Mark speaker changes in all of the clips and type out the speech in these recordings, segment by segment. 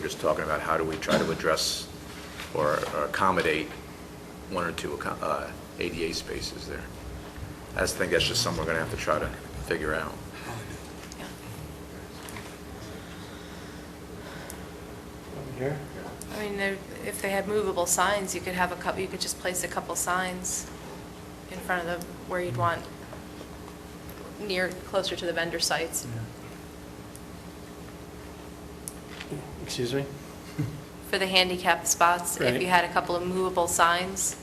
Speaker 1: just talking about how do we try to address or or accommodate one or two accom- uh, ADA spaces there. I just think that's just something we're going to have to try to figure out.
Speaker 2: Here?
Speaker 3: I mean, there- if they had movable signs, you could have a couple, you could just place a couple signs in front of the, where
Speaker 2: Mm-hmm.
Speaker 3: you'd want, near, closer to the vendor sites.
Speaker 2: Excuse me?
Speaker 3: For the handicap spots, if
Speaker 2: Right.
Speaker 3: you had a couple of movable signs,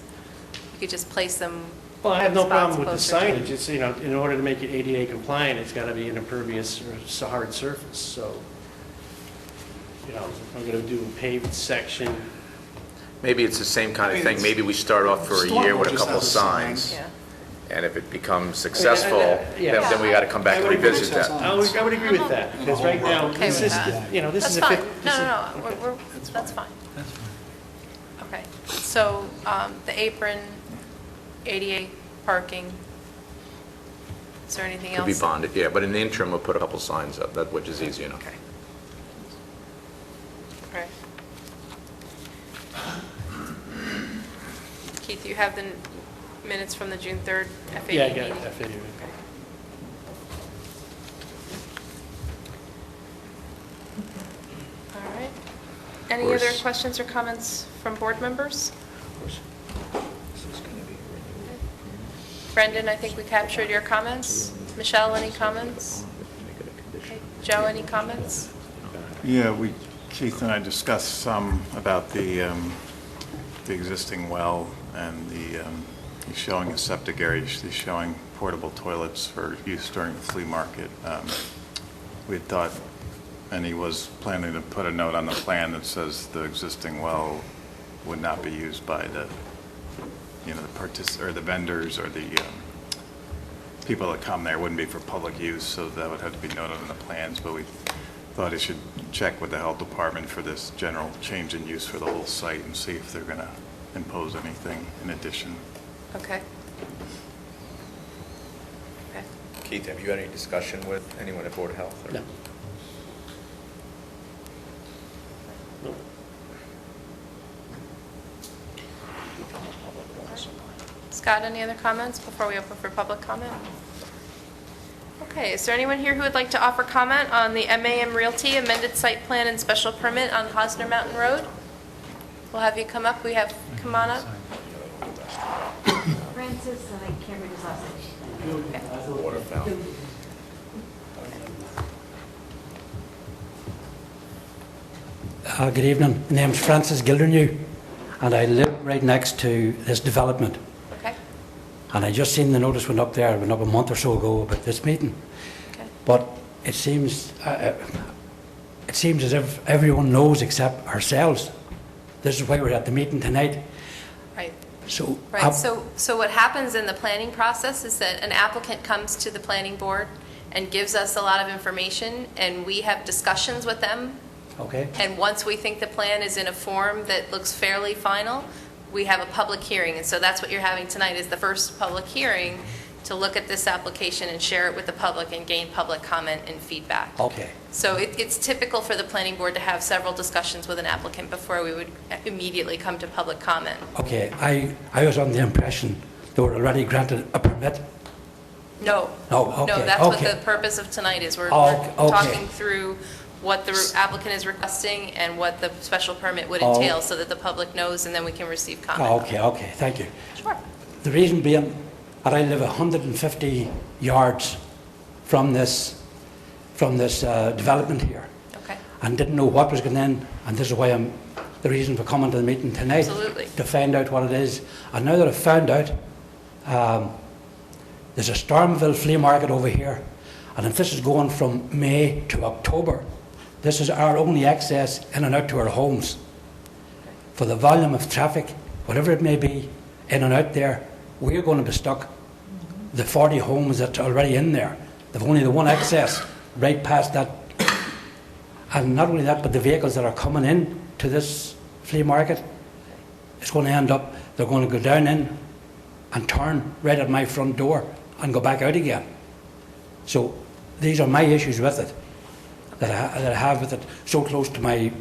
Speaker 3: you could just place them.
Speaker 2: Well, I have no
Speaker 3: spots
Speaker 2: problem with the
Speaker 3: closer to-
Speaker 2: signage, it's, you know, in order to make it ADA compliant, it's gotta be an impervious or s- hard surface, so, you know, if I'm gonna do a paved section,
Speaker 1: Maybe it's the same kind
Speaker 4: I
Speaker 1: of
Speaker 4: mean,
Speaker 1: thing. Maybe we start off for a year
Speaker 4: Stormwater
Speaker 1: with a
Speaker 4: just
Speaker 1: couple
Speaker 4: has a sign.
Speaker 1: signs.
Speaker 3: Yeah.
Speaker 1: And if it becomes successful, then
Speaker 2: yeah.
Speaker 1: then we got to come back and
Speaker 2: I would agree.
Speaker 1: revisit that.
Speaker 2: I would, I would agree with that, because right now,
Speaker 3: Okay
Speaker 2: this
Speaker 3: with
Speaker 2: is,
Speaker 3: that.
Speaker 2: you know, this
Speaker 3: That's
Speaker 2: is a.
Speaker 3: fine.
Speaker 2: fif- this
Speaker 3: No,
Speaker 2: is-
Speaker 3: no, no, we're, we're, that's fine. Okay, so um, the apron, ADA parking, is there anything
Speaker 1: Could
Speaker 3: else?
Speaker 1: be bonded, yeah, but in the interim, we'll put a couple signs up, that, which is easy enough.
Speaker 3: Okay. All right. Keith, you have the n- minutes from the June 3rd FAD meeting?
Speaker 2: Yeah, I got it, I figured.
Speaker 3: Okay. All right. Any other
Speaker 1: course.
Speaker 3: questions or comments from board members? Brendan, I think we captured your comments. Michelle, any comments? Okay. Joe, any comments?
Speaker 5: Yeah, we, Keith and I discussed some about the, um, the existing well and the, um, he's showing a septic area, he's showing portable toilets for use during the flea market. Um, We had thought, and he was planning to put a note on the plan that says the existing well would not be used by the, you know, the partic, or the vendors or the, um, people that come there wouldn't be for public use, so that would have to be noted on the plans, but we thought it should check with the health department for this general change in use for the whole site and see if they're gonna impose anything in addition.
Speaker 3: Okay. Okay.
Speaker 1: Keith, have you had any discussion with anyone at Board of Health?
Speaker 2: No. Nope.
Speaker 3: Scott, any other comments before we open for public comment? Okay, is there anyone here who would like to offer comment on the MAM Realty amended site plan and special permit on Hosner Mountain Road? We'll have you come up, we have, come on up.
Speaker 6: Francis, and I can't read his last name.
Speaker 1: Water fountain.
Speaker 7: Uh, Good evening. My name's Francis Gildernew, and I live right next to this development.
Speaker 3: Okay,
Speaker 7: And I just seen the notice went up there, it went up a month or so ago about this meeting.
Speaker 3: okay.
Speaker 7: But it seems, uh, uh, it seems as if everyone knows except ourselves. This is why we're at the meeting tonight.
Speaker 3: Right,
Speaker 7: So, I-
Speaker 3: right. So, so what happens in the planning process is that an applicant comes to the planning board and gives us a lot of information, and we have discussions with them
Speaker 7: okay,
Speaker 3: And once we think the plan is in a form that looks fairly final, we have a public hearing. And so that's what you're having tonight, is the first public hearing to look at this application and share it with the public and gain public comment and feedback.
Speaker 7: okay,
Speaker 3: So it- it's typical for the planning board to have several discussions with an applicant before we would immediately come to public comment.
Speaker 7: okay. I, I was under the impression they were already granted a permit.
Speaker 3: No.
Speaker 7: No,
Speaker 3: No,
Speaker 7: Oh, okay,
Speaker 3: that's what
Speaker 7: okay.
Speaker 3: the purpose of tonight is. We're
Speaker 7: Oh,
Speaker 3: we're
Speaker 7: okay.
Speaker 3: talking through what the applicant is requesting and what the special permit would
Speaker 7: Oh.
Speaker 3: entail so that the public knows and then we can receive comment.
Speaker 7: Oh, okay, okay, thank you.
Speaker 3: Sure.
Speaker 7: The reason being that I live 150 yards from this, from this uh, development here,
Speaker 3: Okay,
Speaker 7: and didn't know what was going in, and this is why I'm, the reason for coming to the meeting tonight.
Speaker 3: Absolutely.
Speaker 7: To find out what it is. And now that I've found out, um, there's a Stormville flea market over here, and if this is going from May to October, this is our only access in and out to our homes for the volume of traffic, whatever it may be, in and out there, we're going to be stuck. The 40 homes that's already in there, they've only the one access right past that. And not only that, but the vehicles that are coming in to this flea market, it's going to end up, they're going to go down in and turn right at my front door and go back out again. So these are my issues with it, that I, that I have with it so close to my